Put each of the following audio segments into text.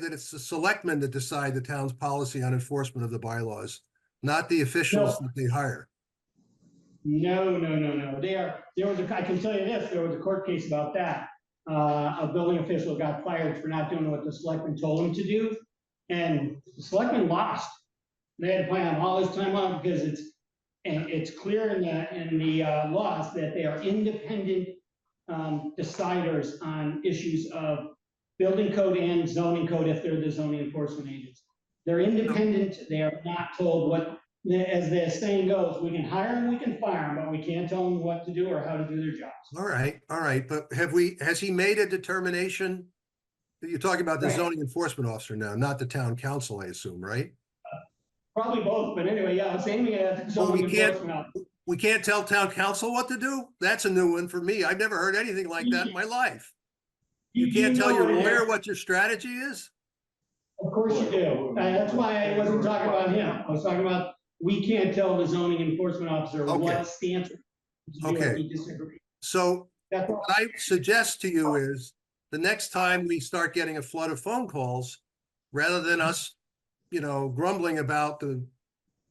that it's the selectmen that decide the town's policy on enforcement of the bylaws, not the officials that they hire. No, no, no, no. There, there was a, I can tell you this, there was a court case about that. Uh, a building official got fired for not doing what the selectman told him to do. And the selectman lost. They had to plan all this time off because it's, and it's clear in the, in the uh, laws that they are independent um, deciders on issues of building code and zoning code if they're the zoning enforcement agents. They're independent, they are not told what the- as the saying goes, we can hire them, we can fire them, but we can't tell them what to do or how to do their jobs. All right, all right, but have we, has he made a determination? You're talking about the Right. zoning enforcement officer now, not the town council, I assume, right? Probably both, but anyway, yeah, I was aiming at the Well, we zoning can't- enforcement. officer. We can't tell town council what to do? That's a new one for me. I've never heard anything like that in my life. You can't tell know your what it lawyer is. what your strategy is? Of course you do. Uh, That's why I wasn't talking about him. I was talking about, we can't tell the zoning enforcement officer Okay. what stance to do if Okay. he disagrees. So That's all. What I suggest to you is, the next time we start getting a flood of phone calls, rather than us, you know, grumbling about the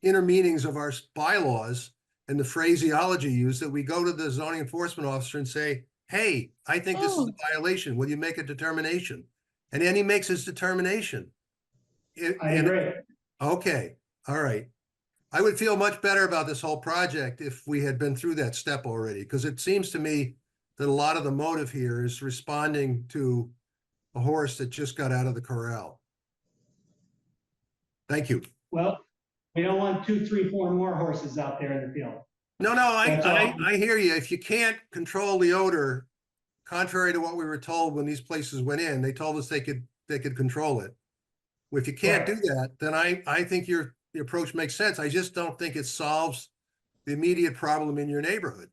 inner meanings of our bylaws and the phraseology used, that we go to the zoning enforcement officer and say, hey, I think this is a Oh. violation. Will you make a determination? And then he makes his determination. It- I and- agree. Okay, all right. I would feel much better about this whole project if we had been through that step already, because it seems to me that a lot of the motive here is responding to a horse that just got out of the corral. Thank you. Well, we don't want two, three, four more horses out there in the field. No, no, I, That's all. I, I hear you. If you can't control the odor, contrary to what we were told when these places went in, they told us they could, they could control it. If you can't do Right. that, then I, I think your, the approach makes sense. I just don't think it solves the immediate problem in your neighborhood.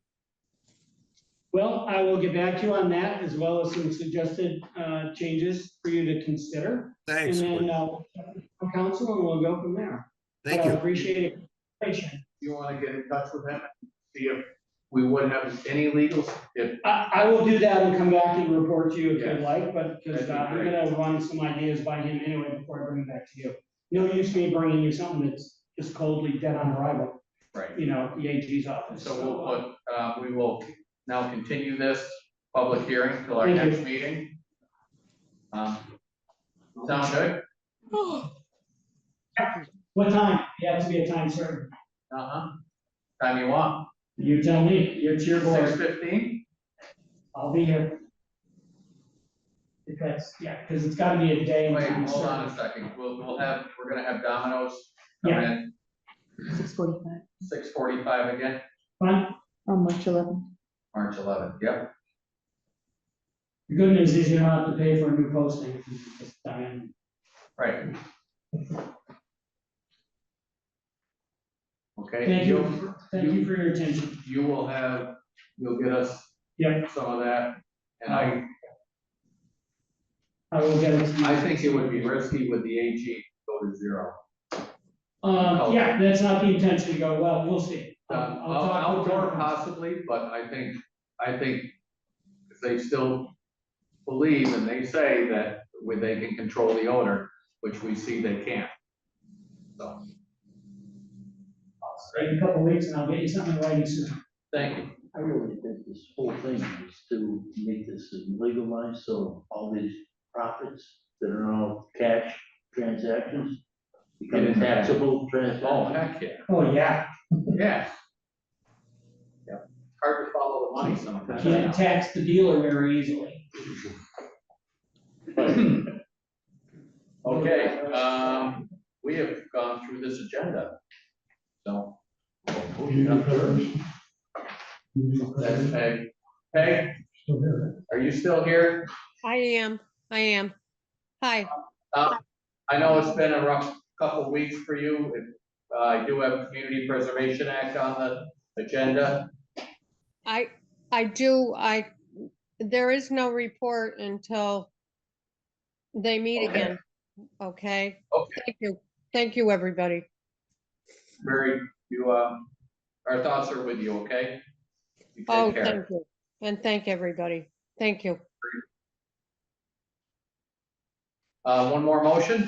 Well, I will get back to you on that as well as some suggested uh, changes for you to consider. And Thanks. then Woody. uh, we'll check with council and we'll go from there. Thank But I you. Appreciate it. Appreciate it. you want to get in touch with him, and see if we would have any legals, if, I, I will do that and come back and report to you if you'd Yes. like, but because That'd be I'm gonna run some ideas by him anyway before I bring it back to you. No use me bringing you something that's just coldly dead on arrival, right. you know, the AG's office. So we'll put, uh, we will now continue this public hearing till our Thank you. next meeting. Um, Sound good? What time? You have to be a time certain. Uh-huh. Time you want, You tell me, you're your board. six fifteen? I'll be here. Because, yeah, because it's gotta be a day. and Wait, time hold on certain. a second, we'll, we'll have, we're gonna have Domino's come Yeah. in Six forty-five six forty-five again, Fine. on March eleventh. March eleventh, yep. The good news is you don't have to pay for a new posting. if you just uh, sign in. Right. Okay. Thank you'll- you, thank you for your attention. you will have, you'll get us Yeah, some of that. And I, I will get it. to you. I think it would be risky with the AG to go to zero. Uh, yeah, that's not the intention to go, well, we'll see. Um, Uh, I'll- I'll talk with Outdoor John. possibly, but I think, I think if they still believe and they say that where they can control the owner, which we see they can't. So, Right, In a couple of weeks and I'll get you something writing soon. thank you. I really think this whole thing is to make this legalized, so all these profits that are all cash transactions Get become in there. taxable Oh, transactions. heck, yeah, Oh, yeah, yeah. Yep. Hard to follow the money sometimes. can't tax the dealer very easily. Okay, um, we have gone through this agenda. So. we'll move it up there. That's Peg. Peg, are you still here? I am, I am. Hi, Uh, I know it's been a rough couple of weeks for you. Uh, I do have Community Preservation Act on the agenda. I, I do, I, there is no report until they meet Okay. again, okay? Okay. Thank you, thank you, everybody. Mary, you, um, our thoughts are with you, okay? You Oh, take care. thank you, and thank everybody, thank you. Uh, one more motion?